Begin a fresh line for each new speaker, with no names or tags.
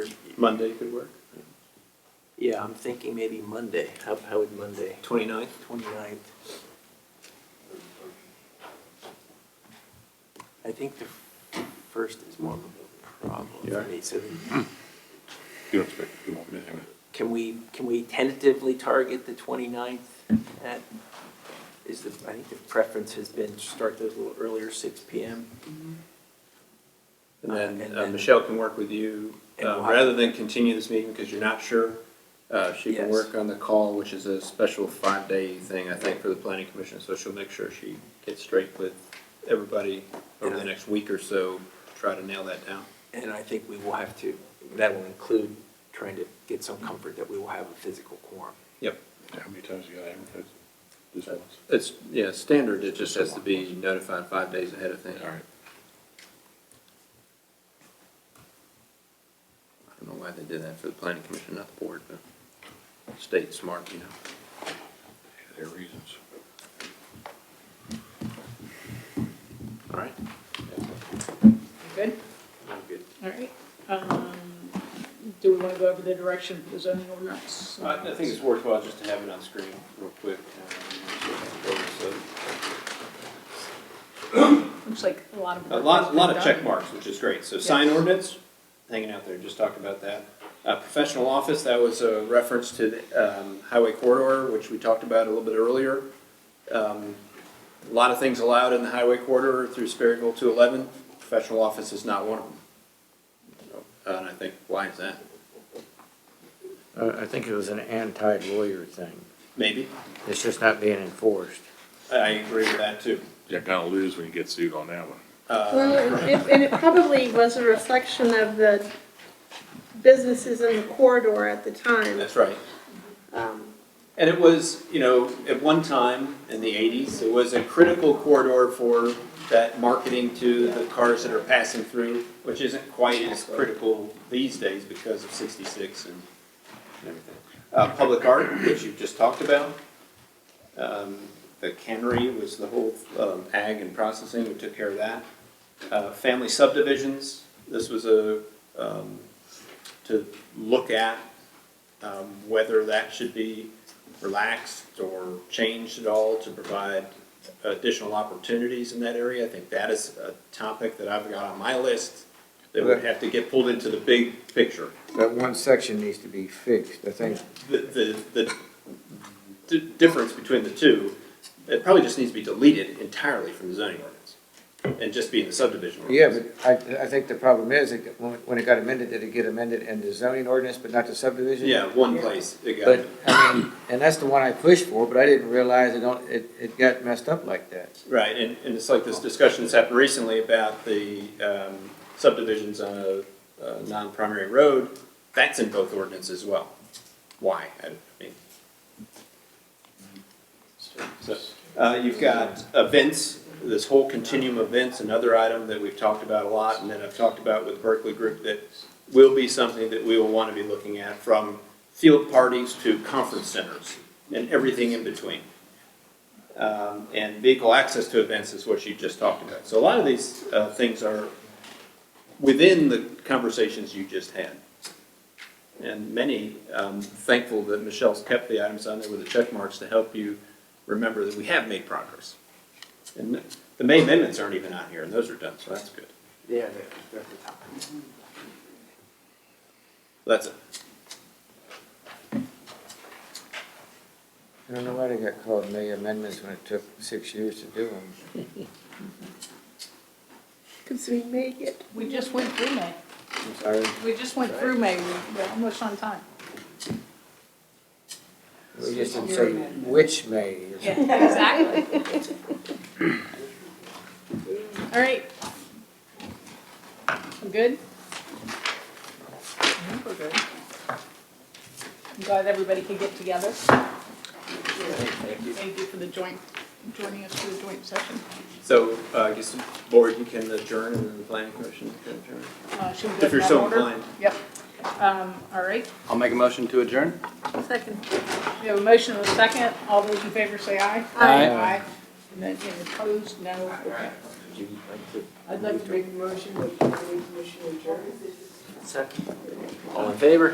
Monday could work.
Yeah, I'm thinking maybe Monday. How, how would Monday,
Twenty-ninth?
29th? I think the first is more of a problem
Yeah.
for me, so
You don't expect, you won't miss him.
can we, can we tentatively target the 29th? That is the, I think the preference has been to start those a little earlier, six PM.
And
Uh,
then
and
uh,
then-
Michelle can work with you,
And
uh,
we'll have-
rather than continue this meeting because you're not sure. Uh, She can
Yes.
work on the call, which is a special five-day thing, I think, for the planning commission. So she'll make sure she gets straight with everybody over the
Yeah.
next week or so, to try to nail that down.
And I think we will have to, that will include trying to get some comfort that we will have a physical quorum.
Yep.
How many times you got advertised? Just once?
It's, yeah, standard, it just has to be notified five days ahead of thing.
All right.
I don't know why they did that for the planning commission, not the board, but state smart, you know.
There are reasons.
All right.
Good, all right. Um, Do we want to go over the direction for the zoning ordinance?
I Uh, I think it's worthwhile just to have it on screen real quick. uh, um,
Looks like a lot of.
so, A
work
lot,
has
a lot
been
of
done.
check marks, which is great. So sign ordinance, hanging out there, just talked about that. Uh, Professional office, that was a reference to the um, highway corridor, which we talked about a little bit earlier. Um, A lot of things allowed in the highway corridor through Sperryville to 11. Professional office is not one of them. So, uh, And I think, why is that?
Uh, I think it was an anti-lawyer thing.
Maybe.
It's just not being enforced.
I- I agree with that, too. Uh,
You're gonna lose when you get sued on that one.
Well, and it- and it probably was a reflection of the businesses in the corridor at the time.
That's right.
Um,
And it was, you know, at one time in the eighties, it was a critical corridor for that marketing to the cars that are passing through, which isn't quite as critical these days because of sixty-six and everything. Uh, public art, which you just talked about. Um, the cannery was the whole, um, ag and processing, we took care of that. Uh, family subdivisions, this was a, um, to look at, um, whether that should be relaxed or changed at all to provide additional opportunities in that area. I think that is a topic that I've got on my list that would have to get pulled into the big picture.
That one section needs to be fixed, I think.
The, the, the d- difference between the two, it probably just needs to be deleted entirely from the zoning ordinance and just be in the subdivision
Yeah,
ordinance.
but I, I think the problem is, it- when when it got amended, did it get amended in the zoning ordinance, but not the subdivision?
Yeah, one place, it got.
But, I mean, and that's the one I pushed for, but I didn't realize it, don't- it, it got messed up like that.
Right, and, and it's like this discussion that's happened recently about the um, subdivisions on a, a non-primary road. That's in both ordinances as well. Why? I don't- I mean. So, uh, you've got events, this whole continuum of events, another item that we've talked about a lot, and that I've talked about with Berkeley Group that will be something that we will want to be looking at from field parties to conference centers and everything in between um, and vehicle access to events is what you just talked about. So a lot of these uh, things are within the conversations you just had. And many, um, thankful that Michelle's kept the items on there with the check marks to help you remember that we have made progress. And the May amendments aren't even on here, and those are done, so that's good.
Yeah, they're, they're at the top.
That's it.
I don't know why they got called May amendments when it took six years to do them.
Cause we may get,
We just went through May.
I'm sorry,
We just went through May. We- We're almost on time.
we just didn't say which May. It's-
Yeah, exactly. All right. I'm good? We're good. I'm glad everybody could get together. Thank you for the joint, joining us for the joint session.
So uh, I guess, board, you can adjourn, and then the planning commission can adjourn.
Uh, Should we go
If
in
you're
that
so
order?
inclined.
Yep. Um, All right.
I'll make a motion to adjourn.
second.
We have a motion and a second. All those in favor say aye.
Aye.
Aye. And then any opposed, no. Okay.
Would you like to
I'd like to make a motion that the planning commission adjourn.
second? All in favor?